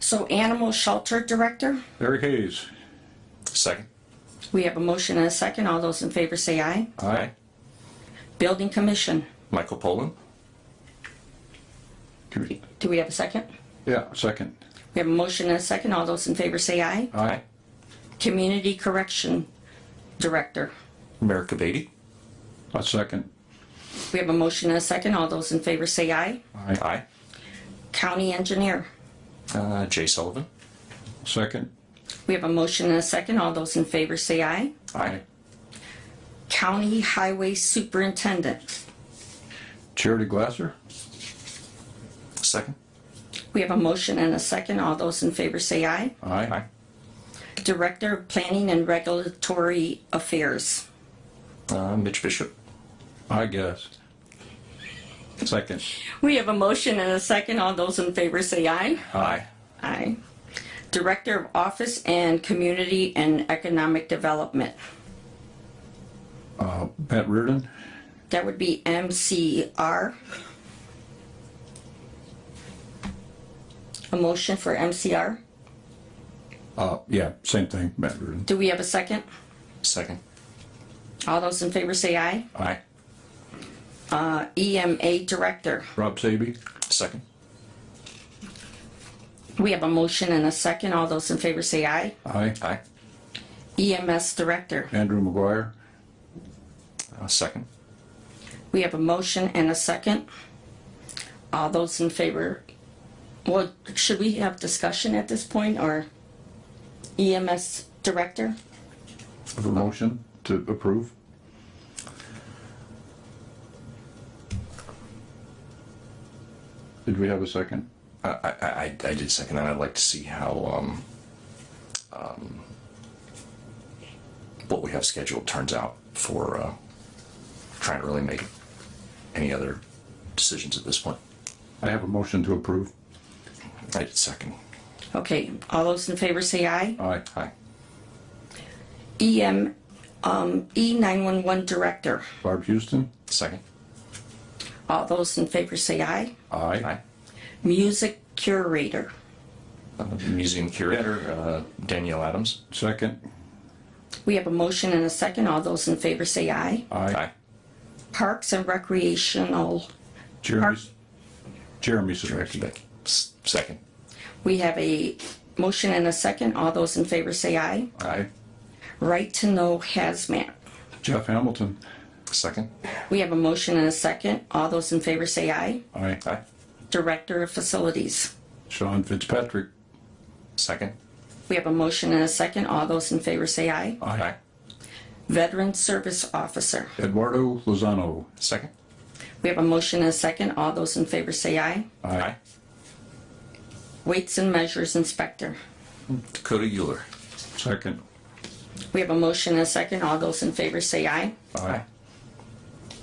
So Animal Shelter Director, Eric Hayes. Second. we have a motion and a second. All those in favor say aye. Aye. Building Commission, Michael Pollan. do we have a second? Yeah, second. We have a motion and a second. All those in favor say aye. Aye. Community Correction Director, Merrick Beatty. A second. we have a motion and a second. All those in favor say aye. Aye. Aye. County Engineer, Uh, Jay Sullivan. Second. we have a motion and a second. All those in favor say aye. Aye. County Highway Superintendent, Charity Glasser. Second. we have a motion and a second. All those in favor say aye. Aye. Aye. Director of Planning and Regulatory Affairs, Uh, Mitch Bishop. I guess. Second. We have a motion and a second. All those in favor say aye. Aye. Aye. Director of Office and Community and Economic Development. Pat Reardon. That would be MCR. A motion for MCR. Uh, yeah, same thing, Matt Reardon. Do we have a second? Second. All those in favor say aye. Aye. EMA Director. Rob Saby. Second. We have a motion and a second. All those in favor say aye. Aye. Aye. EMS Director. Andrew McGuire. Uh, second. We have a motion and a second. All those in favor, well, should we have discussion at this point or EMS director? Have a motion to approve. Did we have a second? I, I, I, I did second, and I'd like to see how, um, um, what we have scheduled turns out for, uh, trying to really make any other decisions at this point. I have a motion to approve. I did second. Okay, all those in favor say aye. Aye. Aye. EM, um, E911 director. Barb Houston. Second. All those in favor say aye. Aye. Music curator. Uh, Museum curator, uh, Danielle Adams. Second. We have a motion and a second. All those in favor say aye. Aye. Parks and recreational, Jeremy's, Jeremy's Director direction. Beck. S- Second. we have a motion and a second. All those in favor say aye. Aye. Right to Know Hazmat. Jeff Hamilton. Second. We have a motion and a second. All those in favor say aye. Aye. Aye. Director of Facilities. Sean Fitzpatrick. Second. We have a motion and a second. All those in favor say aye. Aye. Veteran Service Officer. Eduardo Lozano. Second. We have a motion and a second. All those in favor say aye. Aye. Weights and Measures Inspector. Dakota Euler. Second. We have a motion and a second. All those in favor say aye. Aye.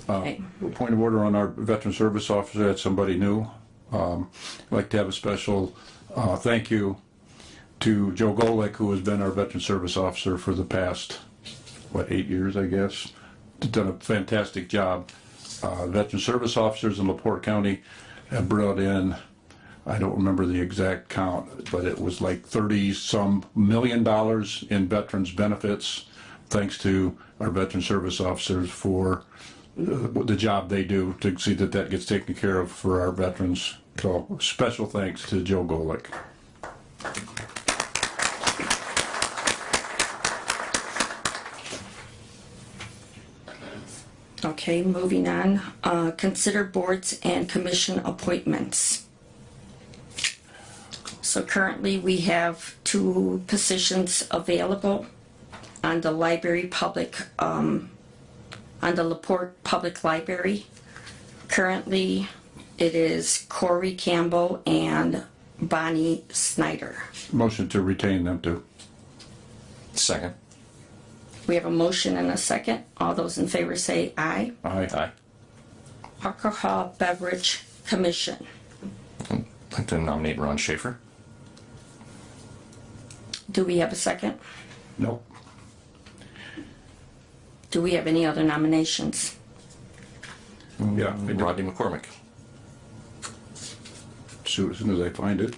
Okay. Point of order on our veteran service officer, that's somebody new. Um, I'd Like to have a special uh, thank you to Joe Golick, who has been our veteran service officer for the past, what, eight years, I guess? Done a fantastic job. Uh, Veteran service officers in LaPorte County have brought in, I don't remember the exact count, but it was like 30-some million dollars in veterans benefits, thanks to our veteran service officers for the job they do to see that that gets taken care of for our veterans. So special thanks to Joe Golick. Okay, moving on. Uh, Consider boards and commission appointments. So currently, we have two positions available on the library public, um, on the Laporte Public Library. Currently, it is Corey Campbell and Bonnie Snyder. Motion to retain them too. Second. We have a motion and a second. All those in favor say aye. Aye. Aye. Alcohol Beverage Commission. I'd like to nominate Ron Schaefer. Do we have a second? No. Do we have any other nominations? Yeah. I do. Rodney McCormick. So as soon as I find it.